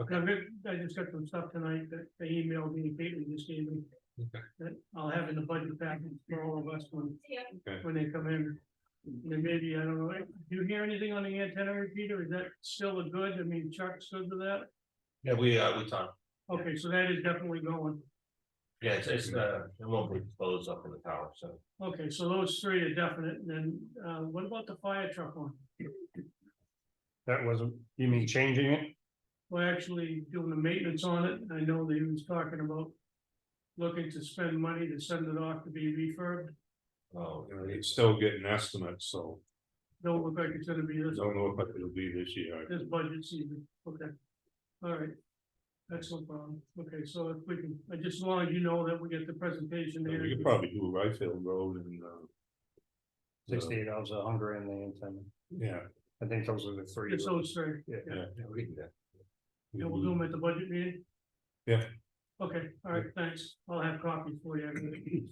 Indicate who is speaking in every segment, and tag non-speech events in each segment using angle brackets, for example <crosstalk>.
Speaker 1: Okay.
Speaker 2: I've written- I just got some stuff tonight that they emailed me, Caitlin just gave me,
Speaker 1: Okay.
Speaker 2: that I'll have in the budget package for all of us when,
Speaker 3: Yeah.
Speaker 1: Okay.
Speaker 2: when they come in. And then maybe, I don't know, do you hear anything on the antenna repeater? Is that still a good? I mean, Chuck stood to that?
Speaker 4: Yeah, we, uh, we talked,
Speaker 2: Okay, so that is definitely going.
Speaker 4: yeah, it's, it's, uh, it won't be exposed up in the tower, so.
Speaker 2: Okay, so those three are definite. And then, uh, what about the fire truck one?
Speaker 1: That wasn't, you mean changing it?
Speaker 2: We're actually doing the maintenance on it. I know that he was talking about looking to spend money to send it off to be refurbed.
Speaker 4: Oh,
Speaker 1: You know, It's still getting estimates, so
Speaker 2: Don't look like it's gonna be
Speaker 1: I
Speaker 2: this,
Speaker 1: don't know if it'll be this year.
Speaker 2: this budget season, okay. All right. That's no problem. Okay, so if we can, I just wanted you to know that we get the presentation
Speaker 1: We
Speaker 2: here.
Speaker 1: could probably do Right Field Road and, uh. the-
Speaker 5: Sixty-eight hours of hunger and the antenna.
Speaker 1: Yeah.
Speaker 5: I think those are the three.
Speaker 2: It's those three,
Speaker 1: Yeah.
Speaker 4: yeah, we can do that.
Speaker 2: and we'll do them at the budget meeting?
Speaker 1: Yeah.
Speaker 2: Okay, all right, thanks. I'll have copies for
Speaker 1: <laughs>
Speaker 2: you.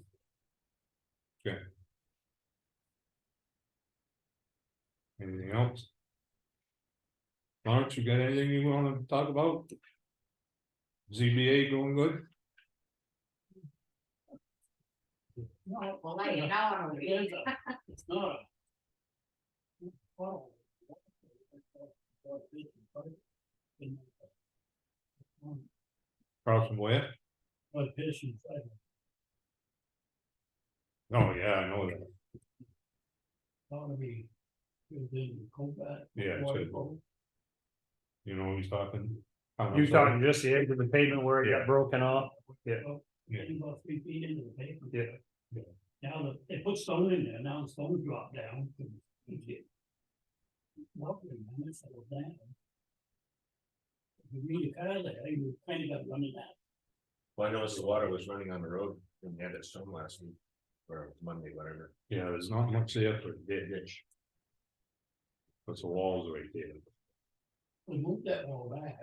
Speaker 1: Anything else? Lawrence, you got anything you wanna talk about? ZBA going good?
Speaker 3: Well, I ain't out on the
Speaker 6: <laughs>
Speaker 3: days.
Speaker 1: Across from where? Oh, yeah, I know that. Yeah, it's good. You know, he's talking.
Speaker 5: You talking just the edge of the pavement where it got
Speaker 4: <laughs>
Speaker 5: broken off?
Speaker 6: about three feet into the pavement.
Speaker 5: Yeah.
Speaker 1: Yeah.
Speaker 6: Now that, they put stone in there, now the stone dropped down. Lovely, man, it's all down. If You meet a car there, you kind of got running out.
Speaker 4: Well, I noticed the water was running on the road and we had that storm last week, or Monday, whatever.
Speaker 1: Yeah, there's not much there for a ditch. Puts the walls right there.
Speaker 6: We moved that wall back,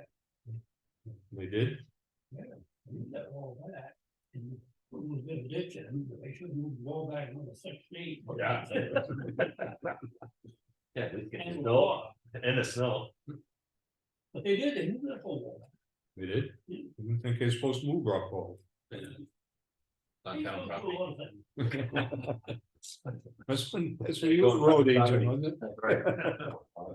Speaker 1: They did?
Speaker 6: moved that wall back. And put a little bit of ditch in, but they should move the wall back another six feet.
Speaker 4: Yeah, we can,
Speaker 6: And the
Speaker 4: snow
Speaker 6: wall.
Speaker 4: and the snow.
Speaker 6: But they did, they moved that whole wall. back.
Speaker 1: They did?
Speaker 6: Yeah.
Speaker 1: I didn't think they're supposed to move rock wall.
Speaker 4: Not town
Speaker 6: They do a lot
Speaker 4: property.
Speaker 6: of things.
Speaker 1: That's when, that's when you were road agent, wasn't it?
Speaker 4: Right.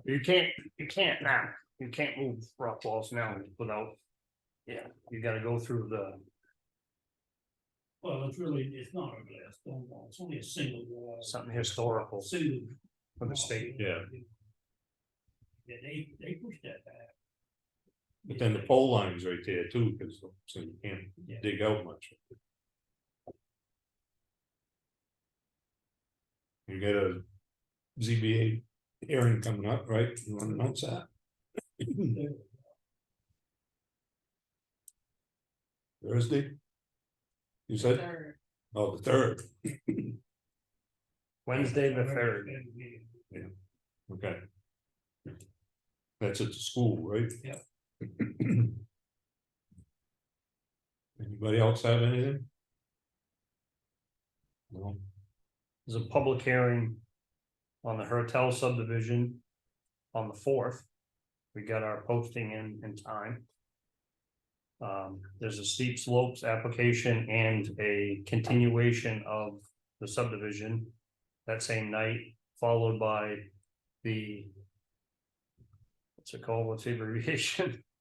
Speaker 5: You can't, you can't now, you can't move rock walls now without. Yeah, you gotta go through the,
Speaker 6: Well, it's really, it's not a glass stone wall, it's only a single wall.
Speaker 5: something historical
Speaker 6: Single.
Speaker 5: from the state.
Speaker 1: yeah.
Speaker 6: Yeah, they, they pushed that back.
Speaker 1: But then the pole line's right there too, because so you can't
Speaker 6: Yeah.
Speaker 1: dig out much. You got a ZBA hearing coming up, right? You wanna announce that? Thursday? You said,
Speaker 3: Third.
Speaker 1: oh, the third,
Speaker 5: Wednesday the third,
Speaker 1: okay. That's at the school, right?
Speaker 6: Yeah.
Speaker 1: <clears throat> Anybody else have anything? No.
Speaker 5: there's a public hearing. On the Hertel subdivision. On the fourth. We got our posting in, in time. Um, there's a steep slopes application and a continuation of the subdivision. That same night, followed by the. What's it called, what's the abbreviation? <laughs>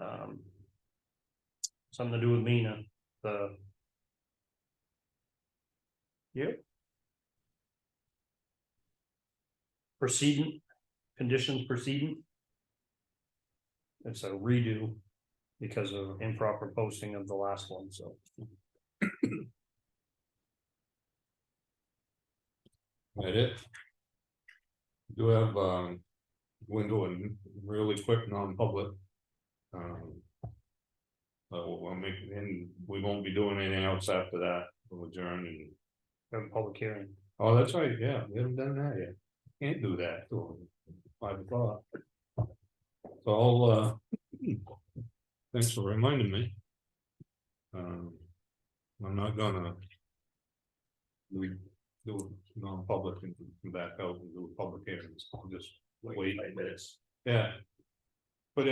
Speaker 5: Um. Something to do with Mina, the. Yep. Proceeding, conditions proceeding. It's a redo because of improper posting of the last one, so.
Speaker 1: That it? Do have, um, window and really quick non-public. Um. But we'll, we'll make, and we won't be doing anything else after that, we'll adjourn and,
Speaker 5: We have a public hearing.
Speaker 1: oh, that's right, yeah, we haven't done that yet. Can't do that till five o'clock. So I'll, uh. Thanks for reminding me. Um. I'm not gonna. We do non-public and come back out and do public hearings, I'll just wait.
Speaker 4: Five minutes.
Speaker 1: Yeah,